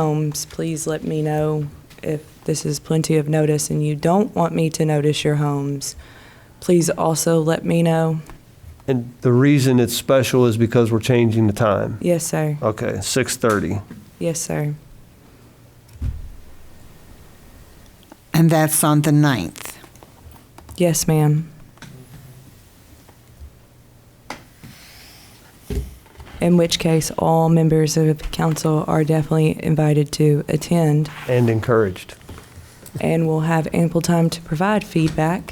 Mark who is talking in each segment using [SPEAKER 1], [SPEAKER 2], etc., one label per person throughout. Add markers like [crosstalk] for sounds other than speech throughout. [SPEAKER 1] homes, please let me know if this is plenty of notice and you don't want me to notice your homes. Please also let me know.
[SPEAKER 2] And the reason it's special is because we're changing the time.
[SPEAKER 1] Yes, sir.
[SPEAKER 2] Okay, 6:30.
[SPEAKER 1] Yes, sir.
[SPEAKER 3] And that's on the 9th.
[SPEAKER 1] Yes, ma'am. In which case, all members of council are definitely invited to attend
[SPEAKER 2] And encouraged.
[SPEAKER 1] and will have ample time to provide feedback.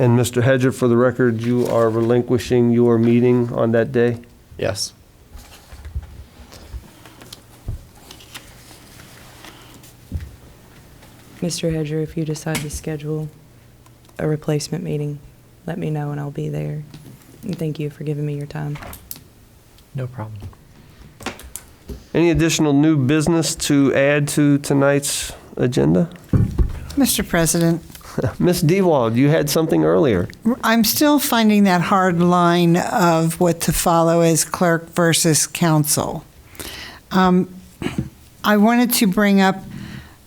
[SPEAKER 2] And Mr. Hedger, for the record, you are relinquishing your meeting on that day?
[SPEAKER 4] Yes.
[SPEAKER 1] Mr. Hedger, if you decide to schedule a replacement meeting, let me know and I'll be there. And thank you for giving me your time.
[SPEAKER 4] No problem.
[SPEAKER 2] Any additional new business to add to tonight's agenda?
[SPEAKER 3] Mr. President,
[SPEAKER 2] Ms. Dewald, you had something earlier.
[SPEAKER 3] I'm still finding that hard line of what to follow as clerk versus council. Um, I wanted to bring up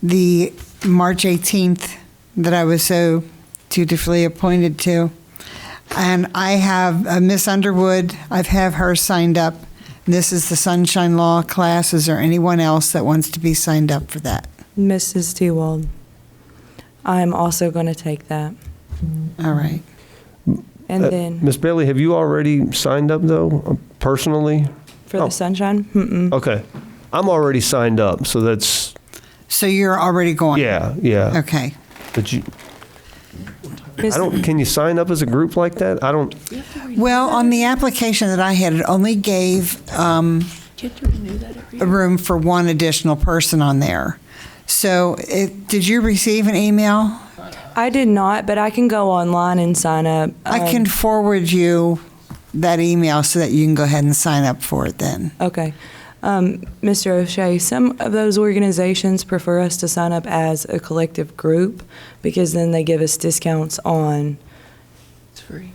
[SPEAKER 3] the March 18th that I was so dutifully appointed to. And I have uh, Miss Underwood, I have her signed up. This is the Sunshine Law class. Is there anyone else that wants to be signed up for that?
[SPEAKER 1] Mrs. Tewald, I'm also going to take that.
[SPEAKER 3] All right.
[SPEAKER 1] And
[SPEAKER 2] Uh,
[SPEAKER 1] then
[SPEAKER 2] Ms. Bailey, have you already signed up, though, uh, personally?
[SPEAKER 1] for
[SPEAKER 2] oh.
[SPEAKER 1] the sunshine, mm-mm,
[SPEAKER 2] Okay. I'm already signed up, so that's,
[SPEAKER 3] So you're already going?
[SPEAKER 2] yeah, yeah.
[SPEAKER 3] Okay.
[SPEAKER 2] But you, I
[SPEAKER 1] Miss-
[SPEAKER 2] don't, can you sign up as a group like that? I don't,
[SPEAKER 3] Oh, Well, on the application that I had, it only gave um,
[SPEAKER 5] Can't you renew that every year?
[SPEAKER 3] room for one additional person on there. So it, did you receive an email?
[SPEAKER 1] I did not, but I can go online and sign up.
[SPEAKER 3] I
[SPEAKER 1] Um,
[SPEAKER 3] can forward you that email so that you can go ahead and sign up for it then.
[SPEAKER 1] Okay. Um, Mr. O'Shea, some of those organizations prefer us to sign up as a collective group because then they give us discounts on
[SPEAKER 5] It's free.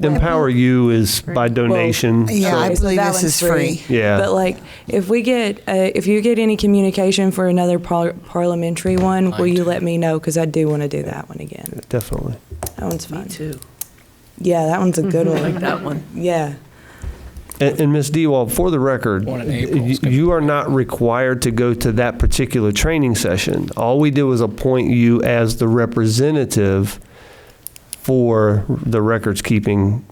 [SPEAKER 2] Empower You is by donation.
[SPEAKER 3] Yeah,
[SPEAKER 2] so-
[SPEAKER 3] I
[SPEAKER 1] So
[SPEAKER 3] believe
[SPEAKER 1] that
[SPEAKER 3] this is
[SPEAKER 1] one's
[SPEAKER 3] free.
[SPEAKER 2] Yeah.
[SPEAKER 1] But like, if we get, uh, if you get any communication for another par- parliamentary one, will you let me know? Because I do want to do that one again.
[SPEAKER 2] Definitely.
[SPEAKER 1] That one's
[SPEAKER 5] Me
[SPEAKER 1] fun.
[SPEAKER 5] too.
[SPEAKER 1] Yeah, that one's a good
[SPEAKER 5] [laughs] Like
[SPEAKER 1] one.
[SPEAKER 5] that one.
[SPEAKER 1] Yeah.
[SPEAKER 2] And, and Ms. Dewald, for the record,
[SPEAKER 6] One in April is
[SPEAKER 2] you-
[SPEAKER 6] gonna-
[SPEAKER 2] you are not required to go to that particular training session. All we did was appoint you as the representative for the Records Keeping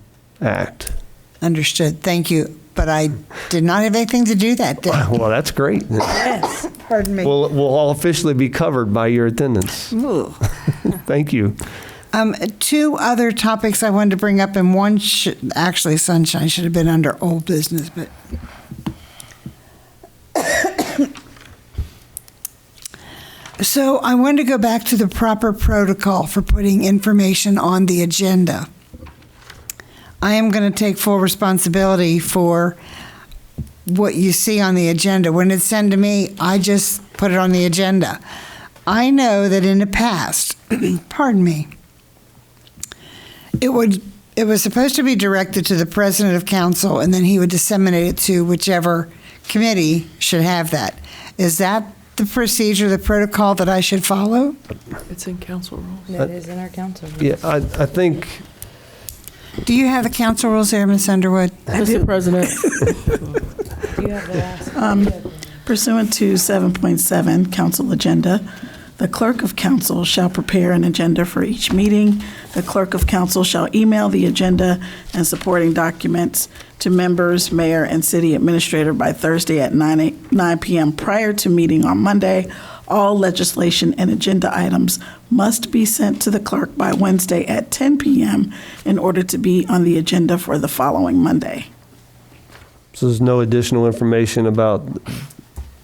[SPEAKER 2] Act.
[SPEAKER 3] Understood. Thank you. But I did not have anything to do that day.
[SPEAKER 2] Well, that's great.
[SPEAKER 3] Yes. Pardon me.
[SPEAKER 2] We'll, we'll all officially be covered by your attendance.
[SPEAKER 3] Ooh.
[SPEAKER 2] Thank you.
[SPEAKER 3] Um, two other topics I wanted to bring up, and one should, actually, sunshine should have been under old business, but. [coughs] So I wanted to go back to the proper protocol for putting information on the agenda. I am going to take full responsibility for what you see on the agenda. When it's sent to me, I just put it on the agenda. I know that in the past, [coughs] pardon me, it would it was supposed to be directed to the president of council, and then he would disseminate it to whichever committee should have that. Is that the procedure, the protocol that I should follow?
[SPEAKER 5] It's in council rules.
[SPEAKER 1] That is in our council.
[SPEAKER 2] Yeah, I, I think,
[SPEAKER 3] Do you have the council rules there, Ms. Underwood?
[SPEAKER 7] Mr. President,
[SPEAKER 1] Do you have the last?
[SPEAKER 7] pursuant to 7.7 Council Agenda, the clerk of council shall prepare an agenda for each meeting. The clerk of council shall email the agenda and supporting documents to members, mayor, and city administrator by Thursday at 9 a- 9 PM prior to meeting on Monday. All legislation and agenda items must be sent to the clerk by Wednesday at 10 PM in order to be on the agenda for the following Monday.
[SPEAKER 2] so there's no additional information about,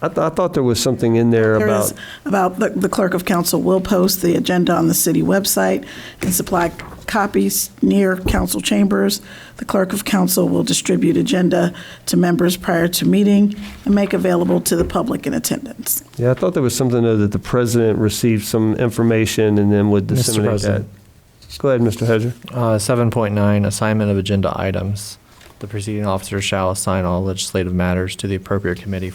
[SPEAKER 2] I, th- I thought there was something in there
[SPEAKER 7] There
[SPEAKER 2] about.
[SPEAKER 7] is about the the clerk of council will post the agenda on the city website and supply copies near council chambers. The clerk of council will distribute agenda to members prior to meeting and make available to the public in attendance.
[SPEAKER 2] Yeah, I thought there was something though that the president received some information and then would
[SPEAKER 4] Mr.
[SPEAKER 2] disseminate that.
[SPEAKER 4] President.
[SPEAKER 2] Go ahead, Mr. Hedger.
[SPEAKER 4] Uh, 7.9 Assignment of Agenda Items. The proceeding officer shall assign all legislative matters to the appropriate committee